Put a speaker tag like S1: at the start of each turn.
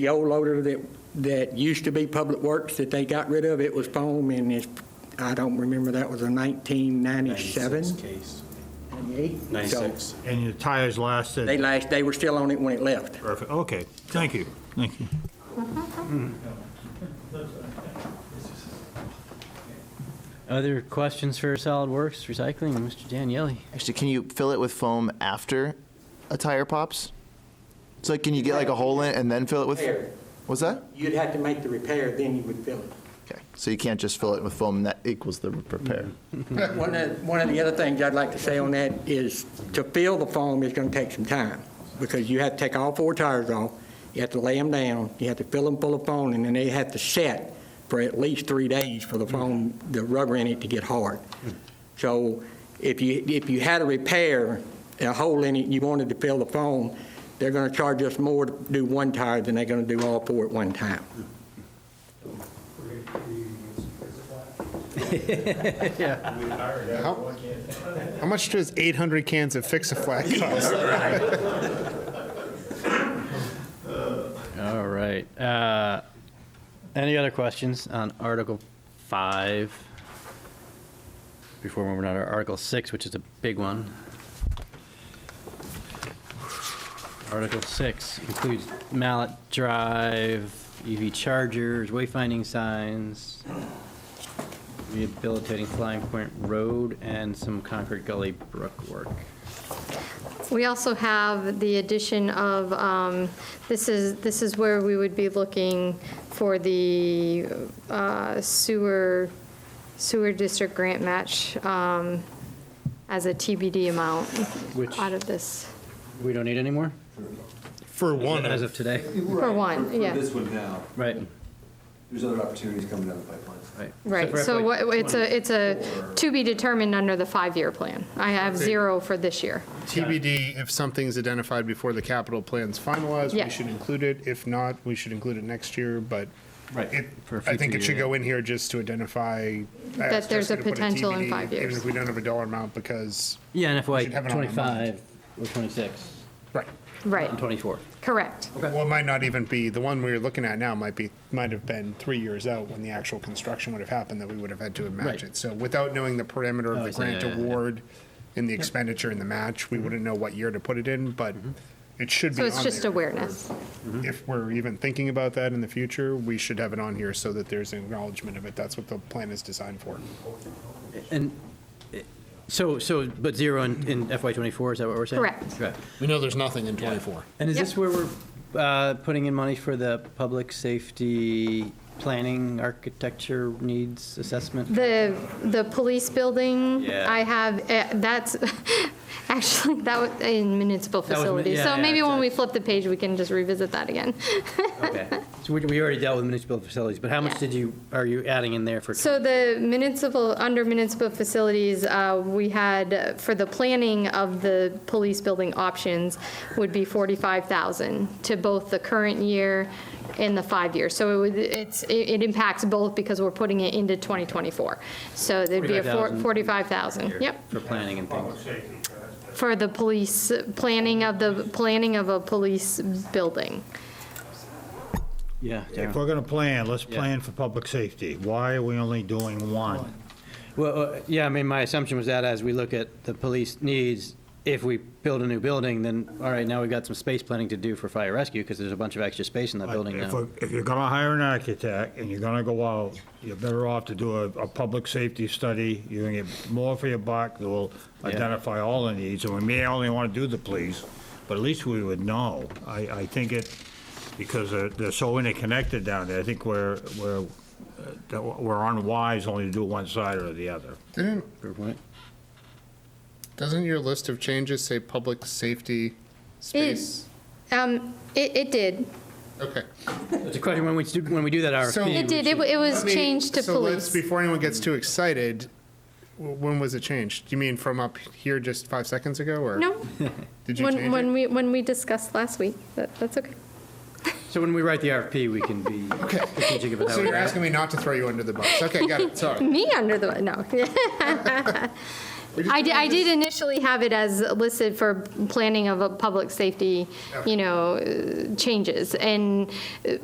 S1: The old loader that, that used to be Public Works that they got rid of, it was foam and it's, I don't remember, that was a 1997,
S2: 96 case.
S1: 98? So
S2: 96.
S3: And your tires
S1: They
S3: lasted,
S1: last, they were still on it when it left.
S3: perfect, okay, thank you, thank you.
S4: Other questions for Solid Works Recycling, Mr. Daniele?
S5: Actually, can you fill it with foam after a tire pops? So like, can you get like a hole in it and then fill it with?
S1: Repair.
S5: What's that?
S1: You'd have to make the repair, then you would fill it.
S5: Okay, so you can't just fill it with foam and that equals the repair.
S1: One of, one of the other things I'd like to say on that is to fill the foam is going to take some time because you have to take all four tires off, you have to lay them down, you have to fill them full of foam, and then they have to set for at least three days for the foam, the rubber in it to get hard. So if you, if you had a repair, a hole in it, you wanted to fill the foam, they're going to charge us more to do one tire than they're going to do all four at one time.
S6: How, how much does 800 cans of Fix-A-Flat cost?
S4: All right. Uh, Any other questions on Article 5? Before moving on to Article 6, which is a big one. Article 6 includes mallet drive, EV chargers, wayfinding signs, rehabilitating Flying Point Road, and some Concord Gully Brook work.
S7: We also have the addition of, um, this is, this is where we would be looking for the uh, sewer, sewer district grant match um, as a TBD amount
S4: Which-
S7: out of this,
S4: We don't need any more?
S6: For one
S4: As
S6: of,
S4: of today?
S7: for one, yeah.
S8: For this one now,
S4: Right.
S8: there's other opportunities coming down the pipeline.
S4: Right.
S7: Right, so what- it's a, it's a to be determined under the five-year plan. I have zero for this year.
S6: TBD, if something's identified before the capital plan's finalized,
S7: Yeah.
S6: we should include it. If not, we should include it next year, but
S4: Right,
S6: it-
S4: for a
S6: I think
S4: future
S6: it should
S4: year.
S6: go in here just to identify. I
S7: That
S6: asked
S7: there's
S6: Jessica
S7: a
S6: to put
S7: potential in
S6: TBD,
S7: five
S6: Even
S7: years.
S6: if we don't have a dollar amount, because,
S4: Yeah, in FY
S6: should have it on our mind.
S4: '25 or '26
S6: right,
S7: Right,
S4: and '24.
S7: correct.
S6: well, it might not even be, the one we we're looking at now might be, might have been three years out when the actual construction would have happened, that we would have had to have
S4: Right.
S6: matched it. So without knowing the parameter
S4: Oh,
S6: of
S4: I
S6: the
S4: see,
S6: grant
S4: yeah, yeah, Mm-hmm. yeah.
S6: award and the expenditure and the match, we wouldn't know what year to put it in, but
S4: Mm-hmm.
S6: it should be
S7: So
S6: on
S7: it's just
S6: there.
S7: awareness.
S6: If we're even thinking about that in the future, we should have it on here so that there's an acknowledgement of it. That's what the plan is designed for.
S4: And eh, so, so, but zero in in FY '24, is that what we're saying?
S7: Correct.
S4: Correct.
S6: We know there's nothing in 24.
S4: And is this
S7: Yep.
S4: where we're uh, putting in money for the public safety planning, architecture needs assessment?
S7: The, the police building,
S4: Yeah.
S7: I have, eh, that's, actually, that was in municipal
S4: That was mi-
S7: facilities.
S4: yeah,
S7: So
S4: yeah,
S7: maybe when we
S4: exactly.
S7: flip the page, we can just revisit that again.
S4: Okay. So we- we already dealt with municipal facilities, but how much
S7: Yeah.
S4: did you, are you adding in there for?
S7: So the municipal, under municipal facilities, uh, we had, uh, for the planning of the police building options, would be 45,000 to both the current year and the five years. So it would, it's, it it impacts both because we're putting it into 2024. So there'd be a four-
S4: 45,000.
S7: 45,000, yep.
S4: For planning and things?
S7: For the police, planning of the, planning of a police building.
S4: Yeah.
S3: If we're gonna plan, let's
S4: Yeah.
S3: plan for public safety. Why are we only doing one?
S4: Well, uh, yeah, I mean, my assumption was that as we look at the police needs, if we build a new building, then, all right, now we've got some space planning to do for fire rescue, because there's a bunch of extra space in that building
S3: If
S4: now.
S3: we're- If you're gonna hire an architect and you're gonna go out, you're better off to do a, a public safety study. You're gonna get more for your buck, that will identify all the needs, and we may only wanna do the police, but at least we would know. I, I think it, because they're, they're so interconnected down there, I think we're, we're, uh, that we're unwise only to do one side or the other.
S6: Didn't,
S4: Good point.
S6: doesn't your list of changes say public safety space?
S7: Um, It, it did.
S6: Okay.
S4: It's a question, when we do, when we do that
S6: So-
S4: RFP.
S7: It did. It wa- it was
S6: Let me-
S7: changed to
S6: so let's-
S7: police.
S6: Before anyone gets too excited, w- when was it changed? You mean from up here just five seconds ago, or?
S7: No,
S6: Did you
S7: when, when
S6: change it?
S7: we, when we discussed last week, that, that's okay.
S4: So when we write the RFP, we can be strategic about that.
S6: So you're asking me not to throw you under the bus. Okay, got it, sorry.
S7: Me under the, no. I did, I did initially have it as listed for planning of a public safety, you know, uh, changes. And